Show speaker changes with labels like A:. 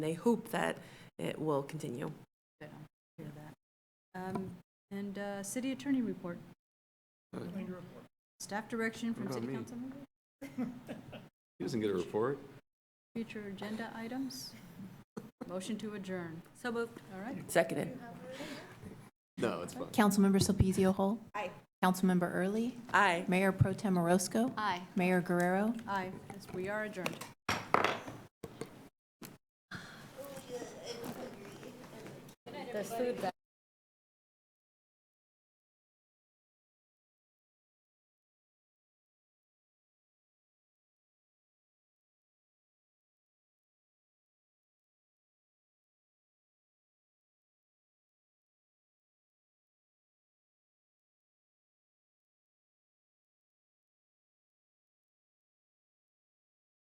A: they hope that it will continue.
B: Good, I'll hear that. Um, And uh, city attorney report. Staff direction from
C: What
B: city
C: about me?
B: council members,
C: He doesn't get a report.
B: future agenda items, motion to adjourn. So moved. All right,
A: Seconded.
C: No, it's fine.
D: Councilmember Silpezio Hall. Aye. Councilmember Early.
A: Aye.
D: Mayor Pro Tem Orozco.
B: aye,
D: Mayor Guerrero.
B: aye, Yes, we are adjourned. There's food back